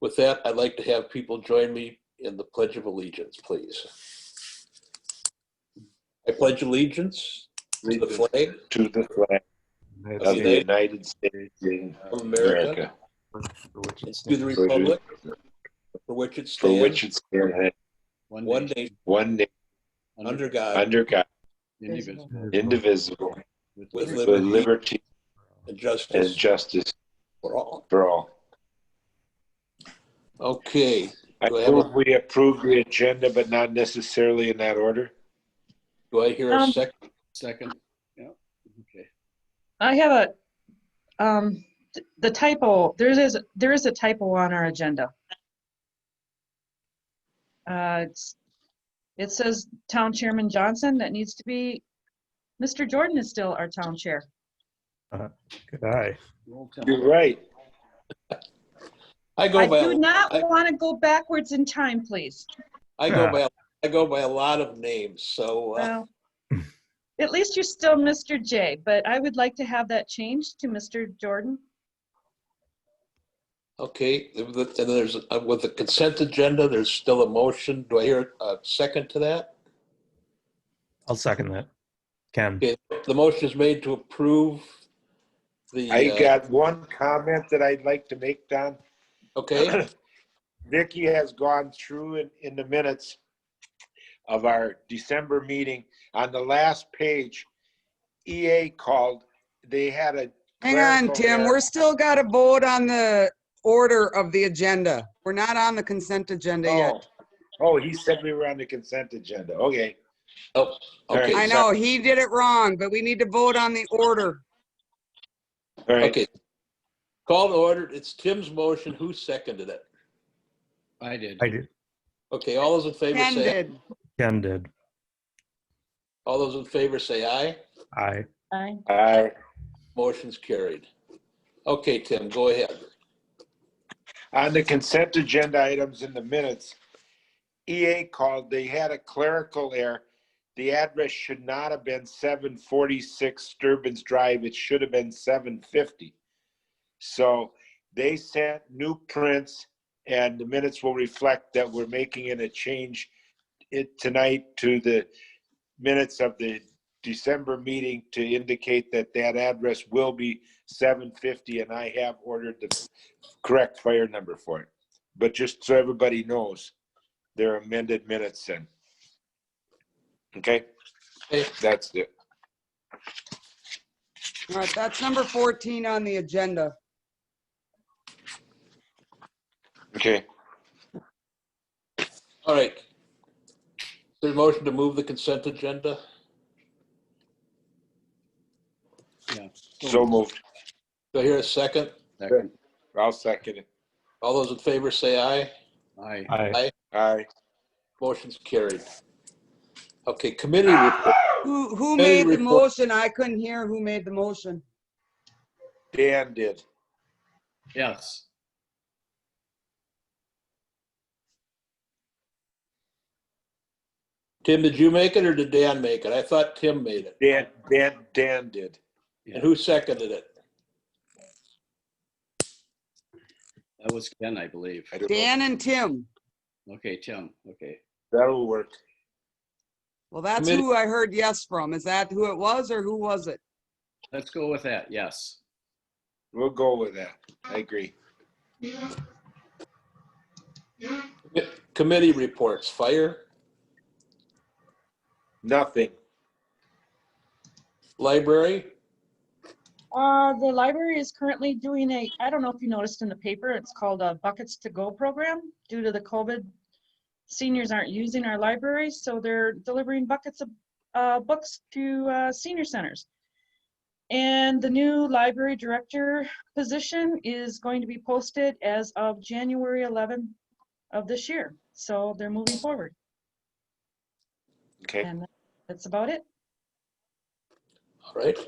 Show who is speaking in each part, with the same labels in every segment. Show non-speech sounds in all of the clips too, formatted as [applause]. Speaker 1: With that, I'd like to have people join me in the Pledge of Allegiance, please. I pledge allegiance to the flag
Speaker 2: To the flag of
Speaker 1: Of
Speaker 2: the
Speaker 1: the-
Speaker 2: United States
Speaker 1: of
Speaker 2: of
Speaker 1: America
Speaker 2: America,
Speaker 1: and to the
Speaker 2: for which-
Speaker 1: republic for which it
Speaker 2: for which
Speaker 1: stands,
Speaker 2: it stands,
Speaker 1: one nation,
Speaker 2: one nation,
Speaker 1: under God,
Speaker 2: under God,
Speaker 3: Indivisible.
Speaker 2: indivisible,
Speaker 1: with
Speaker 2: with
Speaker 1: liberty
Speaker 2: liberty
Speaker 1: and
Speaker 2: and
Speaker 1: justice
Speaker 2: justice
Speaker 1: for all.
Speaker 2: for all.
Speaker 1: Okay,
Speaker 2: I
Speaker 1: Do I have a-
Speaker 2: move we approve the agenda, but not necessarily in that order.
Speaker 1: do I hear a
Speaker 3: Um,
Speaker 1: second?
Speaker 4: Second, yeah, okay.
Speaker 3: I have a, um, th- the typo, there is, there is a typo on our agenda. Uh, it's, it says Town Chairman Johnson, that needs to be, Mr. Jordan is still our town chair.
Speaker 5: Good eye.
Speaker 4: Roll call.
Speaker 2: You're right.
Speaker 1: I go
Speaker 3: I
Speaker 1: by,
Speaker 3: do
Speaker 1: a-
Speaker 3: not
Speaker 1: I-
Speaker 3: want to go backwards in time, please.
Speaker 1: I go by, I go by a lot of names, so uh,
Speaker 3: Well, at least you're still Mr. J, but I would like to have that changed to Mr. Jordan.
Speaker 1: Okay, and the- and there's, uh, with the consent agenda, there's still a motion. Do I hear a second to that?
Speaker 5: I'll second that. Ken,
Speaker 1: Okay, the motion is made to approve the.
Speaker 2: I
Speaker 1: uh,
Speaker 2: got one comment that I'd like to make, Don.
Speaker 1: Okay,
Speaker 2: [coughs] Vicky has gone through in, in the minutes of our December meeting. On the last page, EA called, they had a.
Speaker 6: Hang on,
Speaker 2: clerical
Speaker 6: Tim,
Speaker 2: error.
Speaker 6: we're still got to vote on the order of the agenda. We're not on the consent agenda yet.
Speaker 2: Oh. Oh, he said we were on the consent agenda. Okay.
Speaker 1: okay.
Speaker 6: I know, he did it wrong, but we need to vote on the order.
Speaker 2: All right.
Speaker 1: Okay. Call to order. It's Tim's motion. Who seconded it?
Speaker 4: I did.
Speaker 5: I did.
Speaker 1: Okay, all those in favor
Speaker 6: Ken
Speaker 1: say,
Speaker 6: did.
Speaker 5: Ken did.
Speaker 1: all those in favor say aye.
Speaker 5: I.
Speaker 3: Aye.
Speaker 2: I,
Speaker 1: Motion's carried. Okay, Tim, go ahead.
Speaker 2: on the consent agenda items in the minutes, EA called, they had a clerical error. The address should not have been seven forty-six Sturbin's Drive, it should have been seven fifty. So they sent new prints, and the minutes will reflect that we're making it a change it tonight to the minutes of the December meeting to indicate that that address will be seven fifty, and I have ordered the correct fire number for it. But just so everybody knows, they're amended minutes in. Okay,
Speaker 1: Hey,
Speaker 2: that's it.
Speaker 6: All right, that's number 14 on the agenda.
Speaker 2: Okay,
Speaker 1: All right. There's a motion to move the consent agenda.
Speaker 4: Yeah.
Speaker 2: so moved.
Speaker 1: Do I hear a second?
Speaker 4: Second,
Speaker 2: I'll second it.
Speaker 1: All those in favor say aye.
Speaker 4: aye.
Speaker 5: I.
Speaker 2: Aye.
Speaker 1: Motion's carried. Okay, committee report.
Speaker 6: Who, who
Speaker 1: Hey,
Speaker 6: made the
Speaker 1: report.
Speaker 6: motion? I couldn't hear who made the motion.
Speaker 2: Dan did.
Speaker 4: Yes.
Speaker 1: Tim, did you make it or did Dan make it? I thought Tim made it.
Speaker 2: Dan, Dan, Dan did.
Speaker 1: And who seconded it?
Speaker 4: That was Ken, I believe.
Speaker 2: I don't know.
Speaker 6: Dan and Tim.
Speaker 4: Okay, Tim, okay.
Speaker 2: That'll work.
Speaker 6: Well, that's
Speaker 1: Committee-
Speaker 6: who I heard yes from. Is that who it was or who was it?
Speaker 4: Let's go with that, yes.
Speaker 2: We'll go with that. I agree.
Speaker 1: Committee reports, fire,
Speaker 2: Nothing.
Speaker 1: library,
Speaker 3: Uh, the library is currently doing a, I don't know if you noticed in the paper, it's called a Buckets to Go program. Due to the COVID, seniors aren't using our library, so they're delivering buckets of, uh, books to, uh, senior centers. And the new library director position is going to be posted as of January 11 of this year. So they're moving forward,
Speaker 2: Okay.
Speaker 3: and that's about it.
Speaker 1: all right.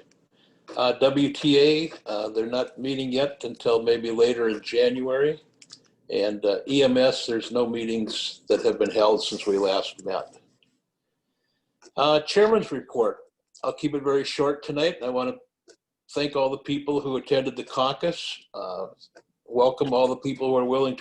Speaker 1: Uh, WTA, uh, they're not meeting yet until maybe later in January. And uh, EMS, there's no meetings that have been held since we last met. Uh, Chairman's report. I'll keep it very short tonight. I want to thank all the people who attended the caucus. Uh, Welcome all the people who are willing to.